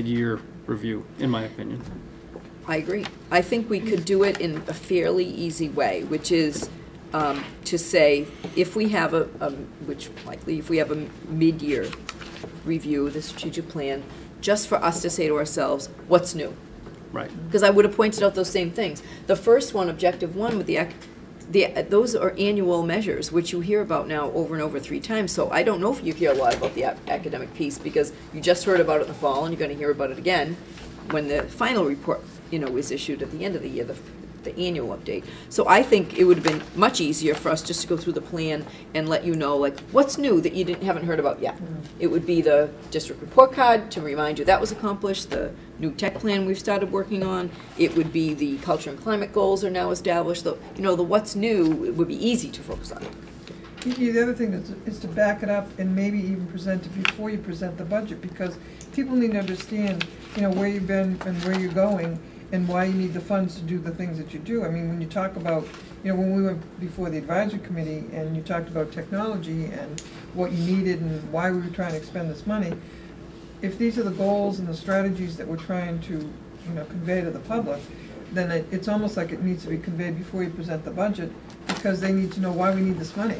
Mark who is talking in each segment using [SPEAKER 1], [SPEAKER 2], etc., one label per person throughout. [SPEAKER 1] mid-year review, in my opinion.
[SPEAKER 2] I agree. I think we could do it in a fairly easy way, which is um, to say, if we have a, a- which likely, if we have a mid-year review of the strategic plan, just for us to say to ourselves, what's new?
[SPEAKER 1] Right,
[SPEAKER 2] Because I would have pointed out those same things. The first one, objective one, with the, ac- the, those are annual measures, which you hear about now over and over three times. So I don't know if you hear a lot about the ac- academic piece, because you just heard about it in the fall, and you're gonna hear about it again when the final report, you know, is issued at the end of the year, the, the annual update. So I think it would have been much easier for us just to go through the plan and let you know, like, what's new that you didn't, haven't heard about yet? It would be the district report card to remind you that was accomplished, the new tech plan we've started working on. It would be the culture and climate goals are now established, the, you know, the what's new would be easy to focus on.
[SPEAKER 3] Kiki, the other thing is, is to back it up and maybe even present it before you present the budget, because people need to understand, you know, where you've been and where you're going, and why you need the funds to do the things that you do. I mean, when you talk about, you know, when we went before the advisory committee, and you talked about technology and what you needed and why we were trying to expend this money, if these are the goals and the strategies that we're trying to, you know, convey to the public, then it, it's almost like it needs to be conveyed before you present the budget, because they need to know why we need this money.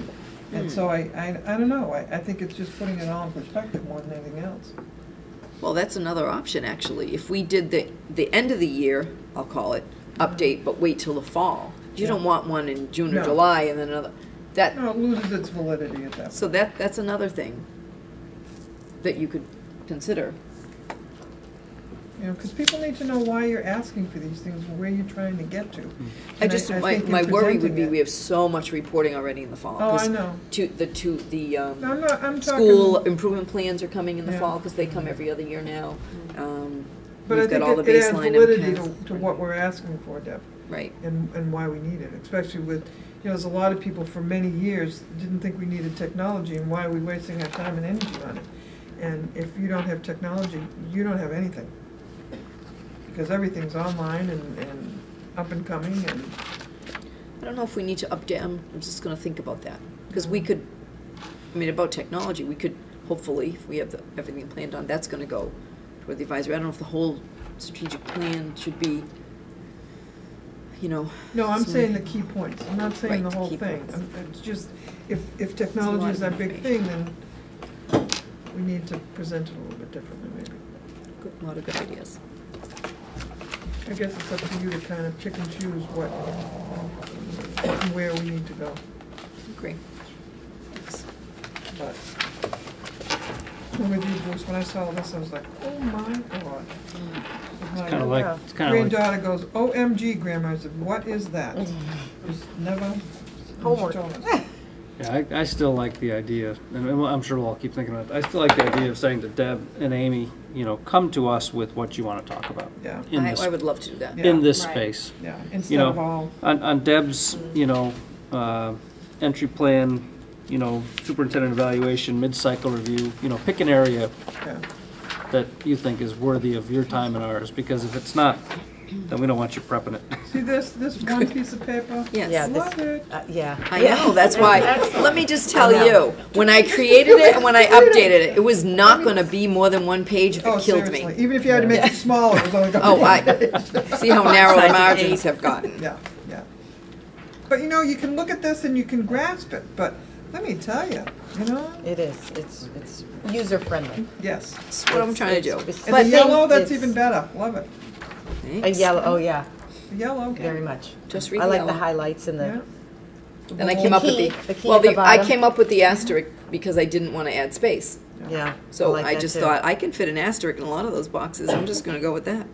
[SPEAKER 3] And so I, I, I don't know, I, I think it's just putting it all in perspective more than anything else.
[SPEAKER 2] Well, that's another option, actually. If we did the, the end of the year, I'll call it, update, but wait till the fall. You don't want one in June or
[SPEAKER 3] No.
[SPEAKER 2] July and then another, that,
[SPEAKER 3] No, it loses its validity at that.
[SPEAKER 2] so that, that's another thing that you could consider.
[SPEAKER 3] You know, because people need to know why you're asking for these things and where you're trying to get to.
[SPEAKER 2] I
[SPEAKER 3] And
[SPEAKER 2] just,
[SPEAKER 3] I
[SPEAKER 2] my,
[SPEAKER 3] think in
[SPEAKER 2] my worry would
[SPEAKER 3] presenting
[SPEAKER 2] be,
[SPEAKER 3] it-
[SPEAKER 2] we have so much reporting already in the fall.
[SPEAKER 3] Oh,
[SPEAKER 2] 'cause
[SPEAKER 3] I know.
[SPEAKER 2] To, the, to, the,
[SPEAKER 3] No, I'm
[SPEAKER 2] um,
[SPEAKER 3] not, I'm
[SPEAKER 2] school
[SPEAKER 3] talking,
[SPEAKER 2] improvement plans are coming in the
[SPEAKER 3] Yeah.
[SPEAKER 2] fall, because they come every other year now. Um,
[SPEAKER 3] but I
[SPEAKER 2] We've got all the
[SPEAKER 3] think it it adds
[SPEAKER 2] baseline
[SPEAKER 3] validity to,
[SPEAKER 2] MCAS.
[SPEAKER 3] to what we're asking for, Deb.
[SPEAKER 2] Right,
[SPEAKER 3] and, and why we need it, especially with, you know, there's a lot of people for many years didn't think we needed technology and why are we wasting our time and energy on it? And if you don't have technology, you don't have anything. Because everything's online and, and up and coming and,
[SPEAKER 2] I don't know if we need to update, I'm, I'm just gonna think about that, because we could, I mean, about technology, we could, hopefully, if we have the, everything planned on, that's gonna go toward the advisory, I don't know if the whole strategic plan should be, you know,
[SPEAKER 3] no, I'm
[SPEAKER 2] So-
[SPEAKER 3] saying the key points, I'm not saying the
[SPEAKER 2] Right,
[SPEAKER 3] whole
[SPEAKER 2] key
[SPEAKER 3] thing.
[SPEAKER 2] points.
[SPEAKER 3] I'm- It's just, if, if technology
[SPEAKER 2] lot
[SPEAKER 3] is
[SPEAKER 2] of
[SPEAKER 3] our big thing,
[SPEAKER 2] information.
[SPEAKER 3] then we need to present it a little bit differently maybe.
[SPEAKER 2] good, a lot of good ideas.
[SPEAKER 3] I guess it's up to you to kind of pick and choose what, what and where we need to go,
[SPEAKER 2] Agree. Thanks.
[SPEAKER 3] but. I'm with you, Bruce, when I saw this, I was like, oh my god.
[SPEAKER 1] it's kind of like, it's kind of like,
[SPEAKER 3] Granddaughter goes, OMG, grandma, I said, what is that?
[SPEAKER 2] Mm.
[SPEAKER 3] Just never.
[SPEAKER 4] Homework.
[SPEAKER 3] she told us.
[SPEAKER 1] yeah, I, I still like the idea, and I'm- I'm sure we'll all keep thinking about it. I still like the idea of saying to Deb and Amy, you know, come to us with what you want to talk about
[SPEAKER 3] Yeah,
[SPEAKER 1] in
[SPEAKER 2] I,
[SPEAKER 1] this,
[SPEAKER 2] I would love to do that.
[SPEAKER 3] Yeah.
[SPEAKER 1] in this
[SPEAKER 4] Right.
[SPEAKER 1] space.
[SPEAKER 3] yeah, instead of all,
[SPEAKER 1] On, on Deb's, you know, uh, entry plan, you know, superintendent evaluation, mid-cycle review, you know, pick an area
[SPEAKER 3] yeah,
[SPEAKER 1] that you think is worthy of your time and ours, because if it's not, then we don't want you prepping it.
[SPEAKER 3] see this, this one piece of paper?
[SPEAKER 2] Yes.
[SPEAKER 4] Yeah, this-
[SPEAKER 3] Love it.
[SPEAKER 4] Uh, Yeah.
[SPEAKER 2] I know, that's why, let me just tell
[SPEAKER 4] I know.
[SPEAKER 2] you, when I created it and when I updated it, it was not gonna be more than one page, if
[SPEAKER 3] Oh,
[SPEAKER 2] it killed me.
[SPEAKER 3] seriously, even if you had to make it smaller, it was only gonna
[SPEAKER 2] Oh,
[SPEAKER 3] be-
[SPEAKER 2] I, see how narrow
[SPEAKER 4] Size
[SPEAKER 2] the
[SPEAKER 4] of
[SPEAKER 2] margins
[SPEAKER 4] eight.
[SPEAKER 2] have gotten.
[SPEAKER 3] Yeah, yeah. But you know, you can look at this and you can grasp it, but let me tell you, you know,
[SPEAKER 4] It is, it's, it's user friendly.
[SPEAKER 3] yes.
[SPEAKER 2] That's what I'm trying to do.
[SPEAKER 4] It's- it's-
[SPEAKER 3] And the
[SPEAKER 4] But
[SPEAKER 3] yellow,
[SPEAKER 4] then
[SPEAKER 3] that's
[SPEAKER 4] it's-
[SPEAKER 3] even better, love it.
[SPEAKER 4] A
[SPEAKER 2] Thanks.
[SPEAKER 4] yellow, oh yeah,
[SPEAKER 3] The yellow,
[SPEAKER 4] very much.
[SPEAKER 2] Just read
[SPEAKER 4] I like
[SPEAKER 2] yellow.
[SPEAKER 4] the highlights and
[SPEAKER 3] yeah.
[SPEAKER 4] the,
[SPEAKER 2] Then I came up with
[SPEAKER 4] The key- the
[SPEAKER 2] the,
[SPEAKER 4] key
[SPEAKER 2] well,
[SPEAKER 4] at the
[SPEAKER 2] the, I
[SPEAKER 4] bottom.
[SPEAKER 2] came up with the asterisk because I didn't want to add space.
[SPEAKER 4] yeah.
[SPEAKER 2] So
[SPEAKER 4] like
[SPEAKER 2] I
[SPEAKER 4] that
[SPEAKER 2] just
[SPEAKER 4] too.
[SPEAKER 2] thought, I can fit an asterisk in a lot of those boxes, I'm just gonna go with that.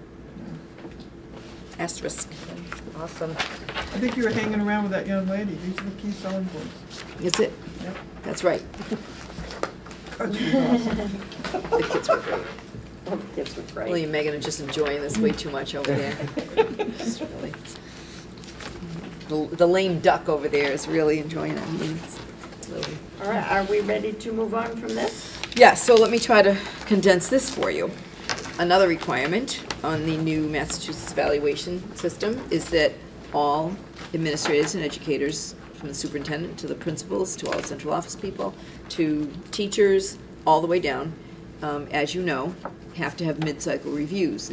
[SPEAKER 2] Asterisk.
[SPEAKER 4] Awesome.
[SPEAKER 3] I think you were hanging around with that young lady, these are the key selling points.
[SPEAKER 2] That's it.
[SPEAKER 3] Yep.
[SPEAKER 2] That's right.
[SPEAKER 3] Oh, she was awesome.
[SPEAKER 2] The kids were great. William and Megan are just enjoying this way too much over there. Just really- The the lame duck over there is really enjoying our meetings. Really.
[SPEAKER 5] All right, are we ready to move on from this?
[SPEAKER 2] Yeah, so let me try to condense this for you. Another requirement on the new Massachusetts evaluation system is that all administrators and educators, from the superintendent to the principals, to all the central office people, to teachers, all the way down, um, as you know, have to have mid-cycle reviews.